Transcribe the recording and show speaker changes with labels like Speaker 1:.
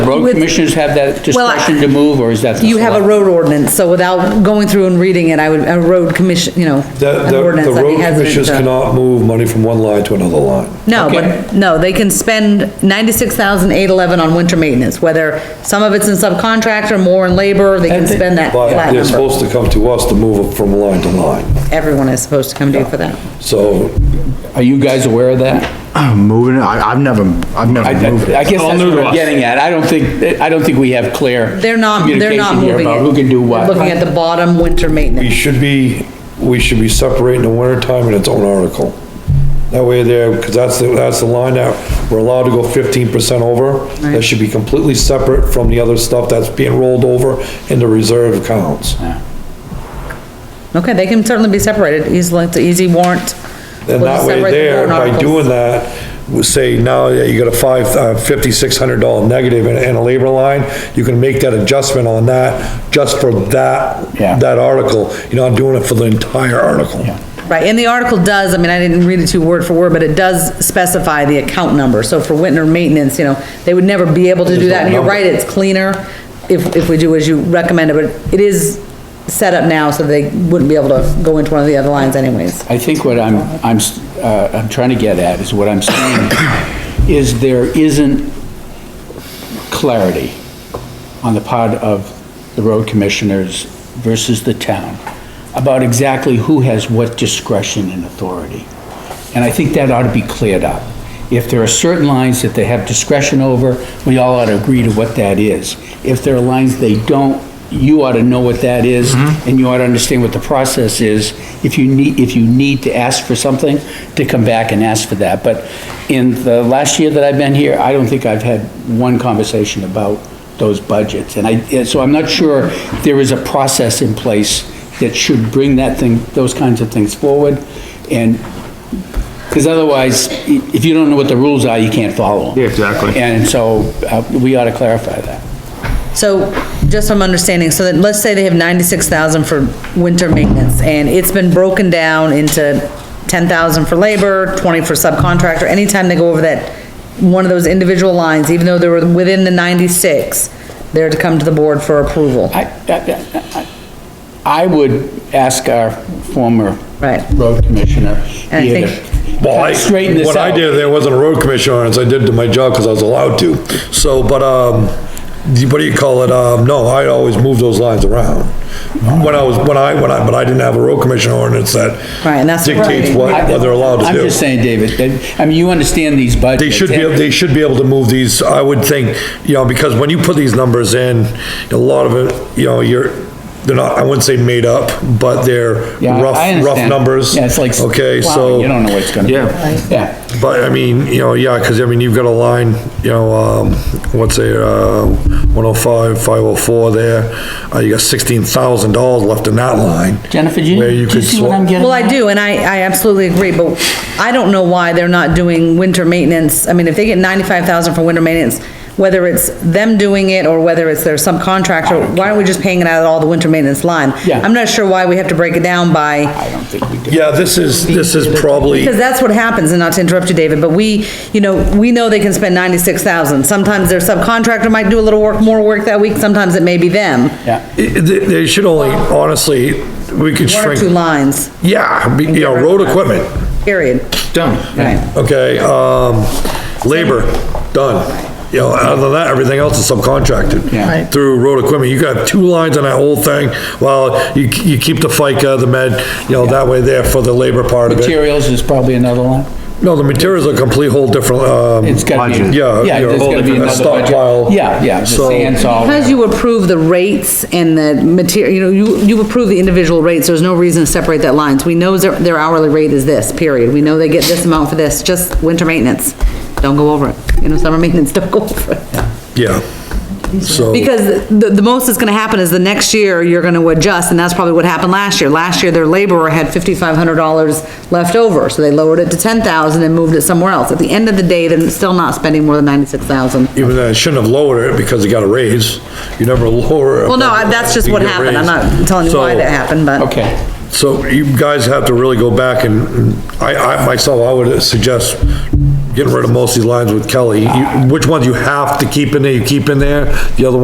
Speaker 1: road
Speaker 2: with-
Speaker 1: commissioners have that
Speaker 2: Well, I-
Speaker 1: discretion to move, or is that? the
Speaker 2: You have a
Speaker 1: select-
Speaker 2: road ordinance, so without going through and reading it, I would, a road commission, you know,
Speaker 3: The,
Speaker 2: an
Speaker 3: the-
Speaker 2: ordinance,
Speaker 3: the
Speaker 2: I'd be
Speaker 3: road
Speaker 2: hesitant
Speaker 3: commissioners
Speaker 2: to-
Speaker 3: cannot move money from one line to another line.
Speaker 2: No,
Speaker 1: Okay.
Speaker 2: but, no, they can spend ninety-six thousand eight eleven on winter maintenance, whether some of it's in subcontract or more in labor, they can
Speaker 1: And they-
Speaker 2: spend that
Speaker 3: But
Speaker 2: flat
Speaker 3: they're
Speaker 2: number.
Speaker 3: supposed to come to us to move it from line to line.
Speaker 2: Everyone is supposed to come do for that.
Speaker 3: So
Speaker 1: Are you guys aware of that?
Speaker 4: I'm moving, it. I, I've never, I've
Speaker 1: I,
Speaker 4: never moved
Speaker 1: I I
Speaker 4: it.
Speaker 1: guess that's
Speaker 5: new
Speaker 1: what
Speaker 5: to
Speaker 1: I'm
Speaker 5: us.
Speaker 1: getting at. I don't think, I don't think we have clear.
Speaker 2: They're not, they're not
Speaker 1: communication here
Speaker 2: moving it.
Speaker 1: about Who can do what?
Speaker 2: They're Looking at the bottom, winter
Speaker 3: we
Speaker 2: maintenance.
Speaker 3: should be, we should be separating the winter time in its own article. That way there, because that's, the- that's the line that we're allowed to go fifteen percent over. That should be completely separate from the other stuff that's being rolled over into reserve accounts.
Speaker 2: Okay, they can certainly be separated easily, it's an easy warrant.
Speaker 3: And
Speaker 2: We'll
Speaker 3: that
Speaker 2: just
Speaker 3: way
Speaker 2: separate the
Speaker 3: there,
Speaker 2: warrant
Speaker 3: by
Speaker 2: articles.
Speaker 3: doing that, we say now that you got a five, uh, fifty-six hundred dollar negative in, in a labor line, you can make that adjustment on that just for that,
Speaker 1: Yeah.
Speaker 3: that article. You're not doing it for the entire article.
Speaker 2: Right, and the article does, I mean, I didn't read it to word for word, but it does specify the account number, so for winter maintenance, you know, they would never be able to do that, and you're right, it's cleaner if, if we do as you recommended, but it is set up now, so they wouldn't be able to go into one of the other lines anyways.
Speaker 1: I think what I'm, I'm, s- uh, I'm trying to get at is what I'm saying is there isn't clarity on the part of the road commissioners versus the town about exactly who has what discretion and authority. And I think that ought to be cleared up. If there are certain lines that they have discretion over, we all ought to agree to what that is. If there are lines they don't, you ought to know what that is, and you ought to understand what the process is. If you need, if you need to ask for something, to come back and ask for that. But in the last year that I've been here, I don't think I've had one conversation about those budgets. And I, and so I'm not sure there is a process in place that should bring that thing, those kinds of things forward. And because otherwise, i- if you don't know what the rules are, you can't follow them.
Speaker 5: Yeah, exactly.
Speaker 1: And so, uh, we ought to clarify that.
Speaker 2: So, just from understanding, so that, let's say they have ninety-six thousand for winter maintenance, and it's been broken down into ten thousand for labor, twenty for subcontractor, anytime they go over that, one of those individual lines, even though they were within the ninety-six, they're to come to the board for approval.
Speaker 1: I, I- I, I would ask our former
Speaker 2: Right.
Speaker 1: road commissioner
Speaker 2: And I
Speaker 1: here
Speaker 2: think-
Speaker 3: Well, I,
Speaker 1: to straighten this out.
Speaker 3: what I did, there wasn't a road commissioner on it, so I did to my job because I was allowed to. So, but, um, you- what do you call it? Um, no, I always moved those lines around. When I was, when I, when I, but I didn't have a road commissioner ordinance that
Speaker 2: Right, and that's-
Speaker 3: dictates what,
Speaker 1: I-
Speaker 3: what they're allowed to
Speaker 1: I'm
Speaker 3: do.
Speaker 1: just saying, David, that- I mean, you understand these budgets.
Speaker 3: They should be,
Speaker 1: and-
Speaker 3: they should be able to move these, I would think, you know, because when you put these numbers in, a lot of it, you know, you're, they're not, I wouldn't say made up, but they're
Speaker 1: Yeah, I
Speaker 3: rough, rough
Speaker 1: understand.
Speaker 3: numbers.
Speaker 1: Yeah, it's like.
Speaker 3: Okay,
Speaker 1: plowing,
Speaker 3: so.
Speaker 1: You don't know what's gonna be.
Speaker 5: Yeah.
Speaker 1: Yeah.
Speaker 3: But I mean, you know, yeah, because I mean, you've got a line, you know, um, what's a, uh, 105, 504 there. Uh, you got $16,000 left in that line.
Speaker 1: Jennifer, do you,
Speaker 3: Where
Speaker 1: do
Speaker 3: you
Speaker 1: you
Speaker 3: could
Speaker 1: see
Speaker 3: swap-
Speaker 1: what I'm getting?
Speaker 2: Well, I
Speaker 1: at?
Speaker 2: do, and I, I absolutely agree, but I don't know why they're not doing winter maintenance. I mean, if they get ninety-five thousand for winter maintenance, whether it's them doing it or whether it's their subcontractor, why aren't we just paying it out of all the winter maintenance line?
Speaker 1: Yeah.
Speaker 2: I'm not sure why we have to break it down by,
Speaker 1: I don't think we do.
Speaker 3: Yeah, this is, this is probably,
Speaker 2: because that's what happens, and not to interrupt you, David, but we, you know, we know they can spend ninety-six thousand. Sometimes their subcontractor might do a little work, more work that week, sometimes it may be them.
Speaker 1: Yeah,
Speaker 3: i- i- they they should only, honestly, we could
Speaker 2: One or
Speaker 3: shrink.
Speaker 2: two lines,
Speaker 3: Yeah, be- you know, road equipment,
Speaker 2: period.
Speaker 5: Done.
Speaker 2: Right.
Speaker 3: okay, um, labor, done. You know, other than that, everything else is subcontracted.
Speaker 1: Yeah. Right.
Speaker 3: Through road equipment, you got two lines on that whole thing, well, you, you keep the FICA, the med, you know, that way there for the labor part of it.
Speaker 1: materials is probably another one.
Speaker 3: No, the materials are a complete whole different, um,
Speaker 1: It's gotta be.
Speaker 4: Budget.
Speaker 3: Yeah,
Speaker 1: Yeah,
Speaker 3: you're
Speaker 1: there's gotta
Speaker 3: holding
Speaker 1: be
Speaker 3: a
Speaker 1: another
Speaker 3: stockpile.
Speaker 1: budget. Yeah, yeah, the
Speaker 3: So-
Speaker 1: sand salt.
Speaker 3: Oh,
Speaker 2: Because you approve the rates and the material, you know, you, you approve the individual rates, there's no reason to separate that lines. We know their, their hourly rate is this, period. We know they get this amount for this, just winter maintenance. Don't go over it. You know, summer maintenance, don't go over it.
Speaker 3: yeah. So,
Speaker 2: Because the, the most that's gonna happen is the next year, you're gonna adjust, and that's probably what happened last year. Last year, their laborer had fifty-five hundred dollars left over, so they lowered it to ten thousand and moved it somewhere else. At the end of the day, they're still not spending more than ninety-six thousand.
Speaker 3: even though I shouldn't have lowered it because it got a raise, you never lower. it.
Speaker 2: Well, no, I- that's just
Speaker 3: You
Speaker 2: what
Speaker 3: get a
Speaker 2: happened. I'm
Speaker 3: raise.
Speaker 2: not telling you why
Speaker 3: So-
Speaker 2: that happened, but.
Speaker 1: Okay.
Speaker 3: So you guys have to really go back and, I, I, myself, I would suggest getting rid of most of these lines with Kelly. You- Which ones you have to keep in there, you keep in there, the other